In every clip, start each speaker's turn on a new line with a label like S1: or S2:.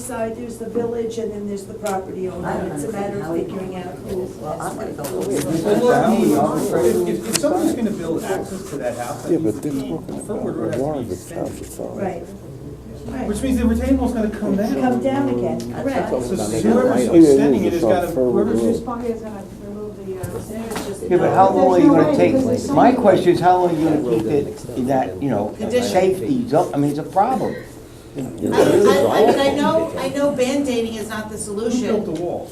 S1: side, there's the village, and then there's the property
S2: I
S1: owner.
S2: don't
S1: It's a matter of
S2: understand how
S1: figuring
S2: we-
S1: out who.
S2: Well, I'm gonna go.
S3: Well, the- if, if, if somebody's gonna build access to that house, that
S4: Yeah,
S3: needs
S4: but
S3: to
S4: they're
S3: be,
S4: talking
S3: Fernwood Road
S4: about
S3: has to
S4: the
S3: be
S4: Warwick House
S3: extended.
S4: Authority.
S1: Right, right.
S3: Which means the retaining wall's gonna
S1: Come
S3: come down.
S1: down again,
S2: Mm, That's
S1: right.
S2: all.
S3: So
S4: Yeah,
S3: whoever's
S4: it is,
S3: extending it has
S4: it's on
S3: gotta,
S4: Fernwood
S3: whoever's
S4: Road.
S3: just
S5: is gonna remove the, uh, stairs, just.
S6: Yeah, but how long are you gonna take?
S5: There's no way, because there's so
S6: My
S5: many-
S6: question is, how long are you gonna keep it in that, you know, safety zone? I mean, it's a problem.
S4: You
S2: I,
S4: know, it is
S2: I, I mean, I
S4: awful.
S2: know, I know band-aiding is not the
S3: Who built
S2: solution.
S3: the wall?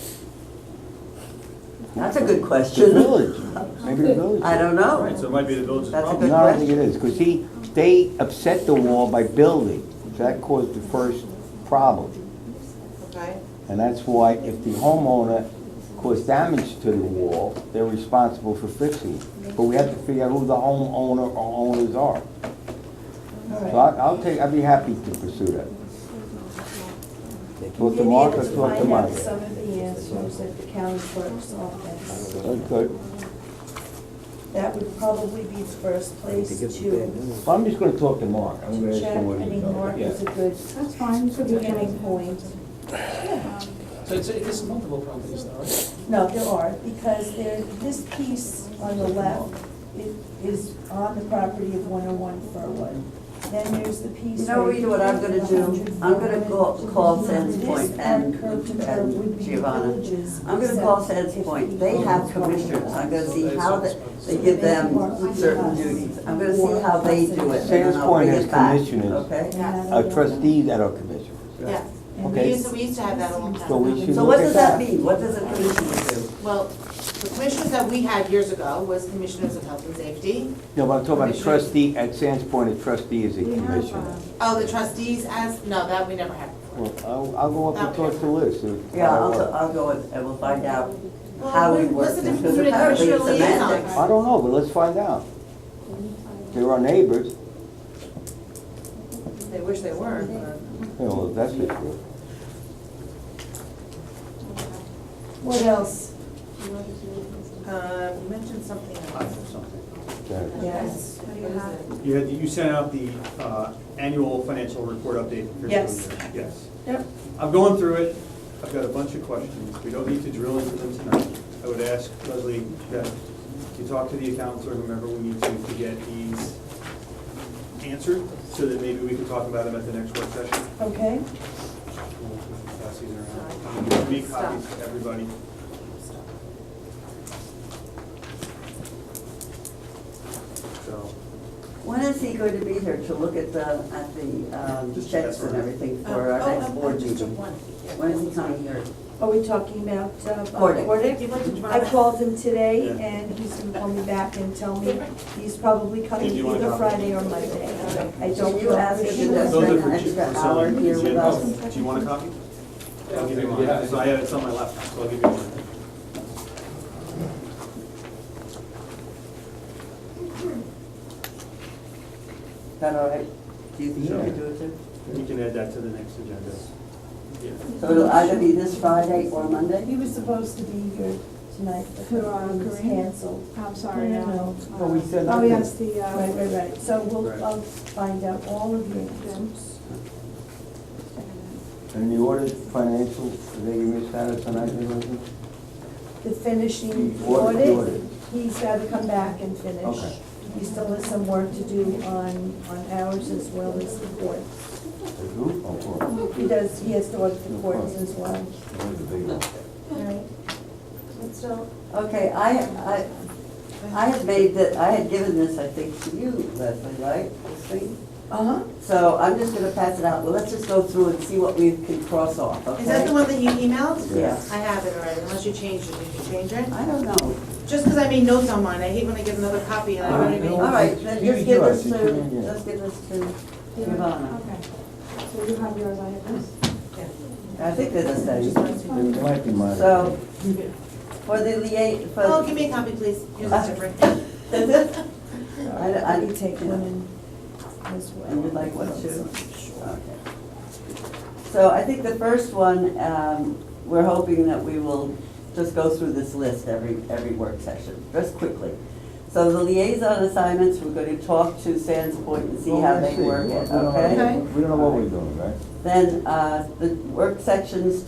S2: That's a good
S6: The
S2: question.
S6: village, maybe the village.
S2: I don't
S3: Right, so
S2: know.
S3: it might be the village's
S2: That's a
S3: problem.
S6: No, I don't think it is, because he, they upset the wall by building, so that caused the first problem.
S2: Okay.
S6: And that's why if the homeowner caused damage to the wall, they're responsible for fixing it. But we have to figure out who the homeowner or owners are. So I, I'll take, I'd be happy to pursue that. Talk to
S1: Maybe
S6: Mark or
S1: let's
S6: talk to
S1: find out
S6: Mike?
S1: some of the answers at the county clerk's office.
S6: Okay,
S1: That would probably be the first place to, to
S6: Well, I'm just gonna talk to Mark. I'm gonna ask
S1: check. I
S6: him what he
S1: mean, Mark
S6: knows.
S1: is a good
S5: That's fine, so we can,
S1: beginning point.
S7: So it's, it's multiple properties though, right?
S1: No, there are, because there, this piece on the left i- is on the property of 101 Furwood. Then there's the piece.
S2: You know,
S1: where
S2: Rita, what I'm gonna do, I'm gonna go- call Sands Point and- and Giovanna. I'm gonna call Sands Point, they have commissioners, I'm gonna see how they, they give them certain duties. I'm gonna see how they do it, and then
S6: Sands
S2: I'll
S6: Point
S2: bring
S6: has
S2: it back,
S6: commissioners.
S2: okay?
S6: Uh, trustees that are commissioners.
S2: Yeah, we
S6: Okay.
S2: used, to- we used to have that a long time
S6: So we
S2: ago.
S6: should
S2: So what
S6: look
S2: does
S6: at
S2: that
S6: that.
S2: mean, what does a commissioner do? Well, the commissioners that we had years ago was commissioners of health and safety,
S6: No, but I'm talking about a
S2: Commissioners.
S6: trustee, at Sands Point, a trustee is a
S5: we have,
S6: commissioner.
S5: uh,
S8: Oh, the trustees as, no, that we never had before.
S6: Well, I'll, I'll go up and talk to Liz. if-
S2: Yeah, I'll, I'll go and, and we'll find out
S8: Well,
S2: how we
S8: what-
S2: work
S8: what's the
S2: this,
S8: difference
S2: because
S8: between a
S2: apparently it's
S8: commercial liaison?
S2: semantics.
S6: I don't know, but let's find out. They're our neighbors,
S2: Mm.
S8: They wish they were, but.
S6: you know, that's for sure.
S1: What else?
S8: Uh, you mentioned something about.
S6: Okay.
S1: Yes.
S8: What do you have?
S3: You had, you sent out the, uh, annual financial report update. for fiscal
S1: Yes.
S3: year. Yes.
S1: Yep.
S3: I've gone through it, I've got a bunch of questions, we don't need to drill into them tonight. I would ask Leslie, that you talk to the accountants or whomever we need to, to get these answered, so that maybe we can talk about them at the next work session.
S1: Okay,
S3: We'll Pass these around. I'm gonna Make copies to everybody. So,
S2: When is he going to be here to look at the, at the um,
S3: Just
S2: checks
S3: for
S2: and
S3: now.
S2: everything
S8: Oh,
S2: for our
S8: oh,
S2: next
S8: oh,
S2: board
S8: just
S2: meeting?
S8: one.
S2: When is he coming here?
S1: are we talking about uh,
S2: Hordick.
S8: Do
S1: Hordick?
S8: you want to draw
S1: I
S8: that?
S1: called him today,
S3: Yeah.
S1: and he's gonna call me back and tell me he's probably coming
S3: Did you want a
S1: either
S3: copy?
S1: Friday or Monday. I
S2: Can
S1: don't
S2: you ask if he does
S1: know.
S3: Those
S2: spend
S3: are for
S2: an
S3: Jim-
S2: extra
S3: for
S2: hour
S3: Sally.
S2: here with
S3: Jim,
S2: us?
S3: Do you want a copy? I'll give you mine, so I have, it's on my laptop, so I'll give you one.
S2: Is that all right? Do you think he could do it too?
S3: We can add that to the next agenda. Yeah.
S2: So it'll either be this Friday or Monday?
S1: He was supposed to be here tonight, but
S5: Who, uh,
S1: he was
S5: Corinne?
S1: canceled.
S5: I'm sorry,
S1: No,
S5: uh,
S1: no.
S6: Oh, we said
S5: Oh,
S6: that.
S5: yes, the,
S1: Right,
S5: uh,
S1: right, right, so
S3: Right.
S1: we'll, I'll find out all of the answers.
S6: And the audit financial, did they give me a status on that, Leslie?
S1: The finishing
S6: The audit, the
S1: audit,
S6: audit.
S1: he's gotta come back and finish.
S6: Okay.
S1: He still has some work to do on, on ours as well as the courts.
S6: The group? Oh, cool.
S1: He does, he has to audit the courts as well.
S6: That was a big one.
S1: Right.
S2: Okay, I, I, I had made that, I had given this, I think, to you, Leslie, right? This thing?
S1: Uh-huh.
S2: So I'm just gonna pass it out, well, let's just go through and see what we can cross off, okay?
S8: Is that the one that you emailed?
S2: Yes.
S8: I have it already, unless you changed it, did you change it?
S2: I don't know.
S8: Just because I made notes on mine, I hate when I get another copy and I already
S2: All
S8: made.
S2: right, then
S6: You
S2: just
S6: do
S2: give
S6: it,
S2: this
S6: you
S2: to,
S6: can, yeah.
S2: just give this to Giovanna.
S5: okay. So you have yours, I have this.
S2: I think they're the same.
S6: It might be mine.
S2: So, for the lia, for.
S8: Oh, give me a copy, please. Yours
S2: Uh,
S8: is different.
S2: I, I
S1: We
S2: need to
S1: take
S2: take one.
S1: women as well.
S2: You would like one too? Okay. So I think the first one, um, we're hoping that we will just go through this list every, every work session, just quickly. So the liaison assignments, we're gonna talk to Sands Point and see how they work it,
S6: We don't know-
S2: okay?
S8: Okay.
S6: We don't know what we're doing, right?
S2: Then, uh, the work sections